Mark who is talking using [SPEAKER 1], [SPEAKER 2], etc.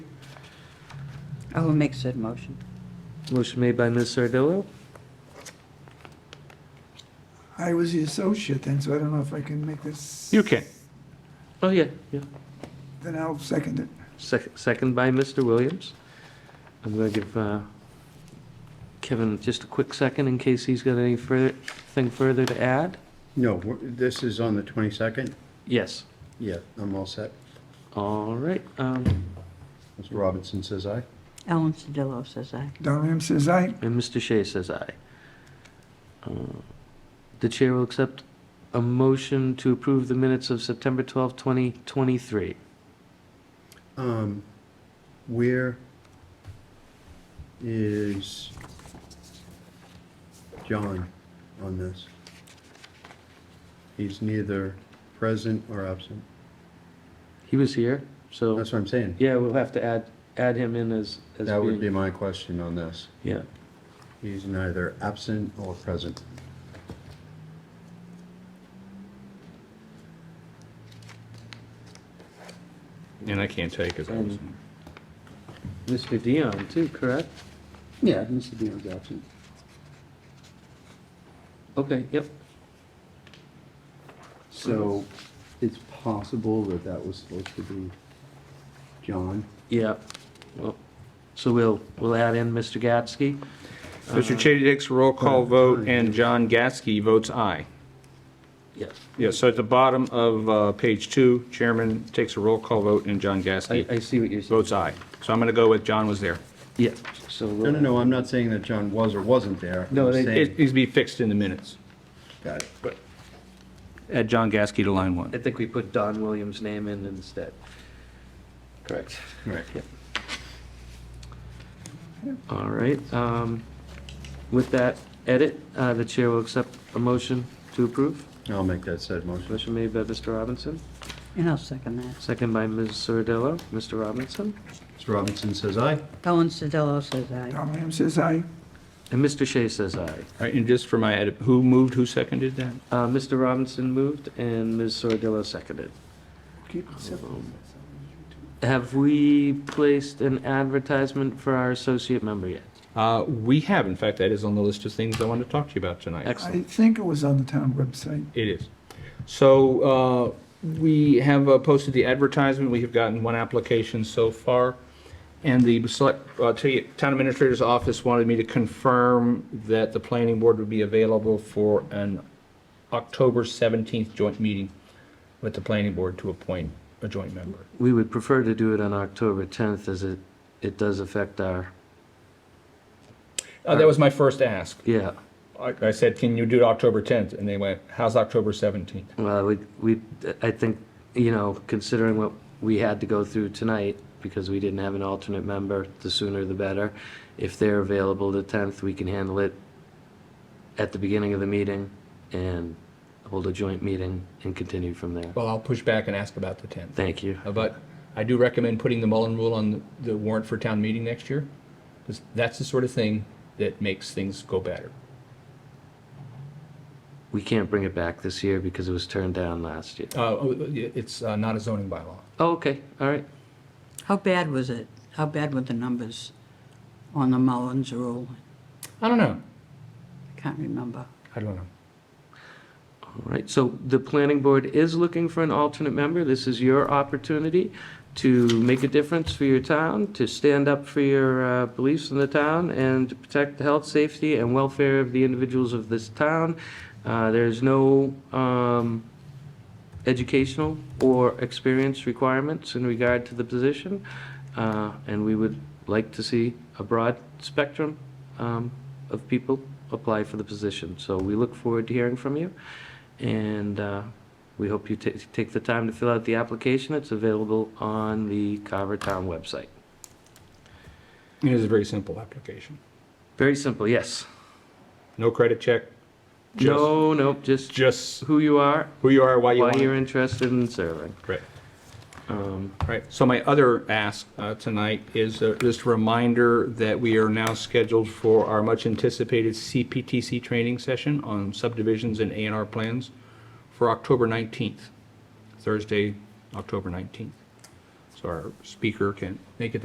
[SPEAKER 1] I will make said motion.
[SPEAKER 2] Motion made by Ms. Sardillo,
[SPEAKER 3] I was the associate then, so I don't know if I can make this.
[SPEAKER 4] You can.
[SPEAKER 2] Oh, yeah, yeah.
[SPEAKER 3] Then I'll second it.
[SPEAKER 2] Sec- Second by Mr. Williams. I'm going to give uh, Kevin just a quick second in case he's got any further, thing further to add.
[SPEAKER 5] No, we're- this is on the 22nd?
[SPEAKER 2] Yes,
[SPEAKER 5] Yeah, I'm all set.
[SPEAKER 2] all right. um,
[SPEAKER 5] Mr. Robinson says aye.
[SPEAKER 1] Ellen Sedillo says aye.
[SPEAKER 3] Don Lamb says aye.
[SPEAKER 2] And Mr. Shea says aye. Uh, The chair will accept a motion to approve the minutes of September 12, 2023.
[SPEAKER 5] Um, Where is John on this? He's neither present or absent.
[SPEAKER 2] He was here, so,
[SPEAKER 5] That's what I'm saying.
[SPEAKER 2] yeah, we'll have to add, add him in as, as
[SPEAKER 5] That would be
[SPEAKER 2] being-
[SPEAKER 5] my question on this.
[SPEAKER 2] Yeah,
[SPEAKER 5] He's neither absent or present.
[SPEAKER 4] And I can't take it.
[SPEAKER 2] Mr. Dion too, correct?
[SPEAKER 6] Yeah, Mr. Dion's absent.
[SPEAKER 2] Okay, yep.
[SPEAKER 5] So it's possible that that was supposed to be John.
[SPEAKER 2] Yeah, well, so we'll, we'll add in Mr. Gatsky.
[SPEAKER 4] Mr. Mm. Chady Dix, roll call vote, and John Gasky votes aye.
[SPEAKER 2] Yes,
[SPEAKER 4] Yeah, so at the bottom of uh, page two, chairman takes a roll call vote, and John
[SPEAKER 2] I,
[SPEAKER 4] Gasky
[SPEAKER 2] I see what you're saying.
[SPEAKER 4] votes aye. So I'm going to go with John was there.
[SPEAKER 2] Yeah, so.
[SPEAKER 5] No, no, no, I'm not saying that John was or wasn't there.
[SPEAKER 2] No,
[SPEAKER 5] I'm
[SPEAKER 2] they-
[SPEAKER 5] saying-
[SPEAKER 4] It needs to be fixed in the minutes.
[SPEAKER 5] Got it.
[SPEAKER 4] Add John Gasky to line
[SPEAKER 2] I
[SPEAKER 4] one.
[SPEAKER 2] think we put Don Williams' name in instead. Correct.
[SPEAKER 5] Right.
[SPEAKER 2] All right, um, with that edit, uh, the chair will accept a motion to approve.
[SPEAKER 5] I'll make that said motion.
[SPEAKER 2] Motion made by Mr. Robinson,
[SPEAKER 1] And I'll second that.
[SPEAKER 2] second by Ms. Sardillo. Mr. Robinson?
[SPEAKER 5] Mr. Robinson says aye.
[SPEAKER 1] Ellen Sedillo says aye.
[SPEAKER 3] Don Lamb says aye.
[SPEAKER 2] And Mr. Shea says aye.
[SPEAKER 4] All right, and just for my edit, who moved, who seconded that?
[SPEAKER 2] Uh, Mr. Robinson moved and Ms. Sardillo seconded.
[SPEAKER 3] Keep it separate.
[SPEAKER 2] Have we placed an advertisement for our associate member yet?
[SPEAKER 4] Uh, We have, in fact, that is on the list of things I wanted to talk to you about tonight.
[SPEAKER 2] Excellent.
[SPEAKER 3] I think it was on the town website.
[SPEAKER 4] It is. So uh, we have uh, posted the advertisement. We have gotten one application so far. And the select, uh, t- town administrator's office wanted me to confirm that the planning board would be available for an October 17th joint meeting with the planning board to appoint a joint member.
[SPEAKER 2] We would prefer to do it on October 10th as it, it does affect our,
[SPEAKER 4] Uh, That was my first ask.
[SPEAKER 2] yeah,
[SPEAKER 4] I I said, can you do it October 10th? And they went, how's October 17th?
[SPEAKER 2] well, we, we, I think, you know, considering what we had to go through tonight, because we didn't have an alternate member, the sooner the better. If they're available the 10th, we can handle it at the beginning of the meeting and hold a joint meeting and continue from there.
[SPEAKER 4] Well, I'll push back and ask about the 10th.
[SPEAKER 2] Thank you.
[SPEAKER 4] Uh, But I do recommend putting the Mullen Rule on the- the warrant for town meeting next year, because that's the sort of thing that makes things go better.
[SPEAKER 2] We can't bring it back this year because it was turned down last year.
[SPEAKER 4] Uh, oh, It's uh, not a zoning bylaw.
[SPEAKER 2] Oh, okay, all right.
[SPEAKER 1] How bad was it? How bad were the numbers on the Mullins rule?
[SPEAKER 4] I don't know.
[SPEAKER 1] Can't remember.
[SPEAKER 4] I don't know.
[SPEAKER 2] All right, so the planning board is looking for an alternate member. This is your opportunity to make a difference for your town, to stand up for your uh, beliefs in the town, and to protect the health, safety, and welfare of the individuals of this town. Uh, There's no um, educational or experience requirements in regard to the position, uh, and we would like to see a broad spectrum um, of people apply for the position. So we look forward to hearing from you, and uh, we hope you ta- take the time to fill out the application. It's available on the Carver Town website.
[SPEAKER 4] It is a very simple application.
[SPEAKER 2] Very simple, yes.
[SPEAKER 4] No credit check, just,
[SPEAKER 2] No, no, just
[SPEAKER 4] just
[SPEAKER 2] who you are,
[SPEAKER 4] who you are, why you
[SPEAKER 2] why
[SPEAKER 4] want
[SPEAKER 2] you're
[SPEAKER 4] it.
[SPEAKER 2] interested in serving.
[SPEAKER 4] Right.
[SPEAKER 2] Um,
[SPEAKER 4] Right, so my other ask uh, tonight is uh, just a reminder that we are now scheduled for our much-anticipated CPTC training session on subdivisions and A and R plans for October 19th, Thursday, October 19th. So our speaker can make it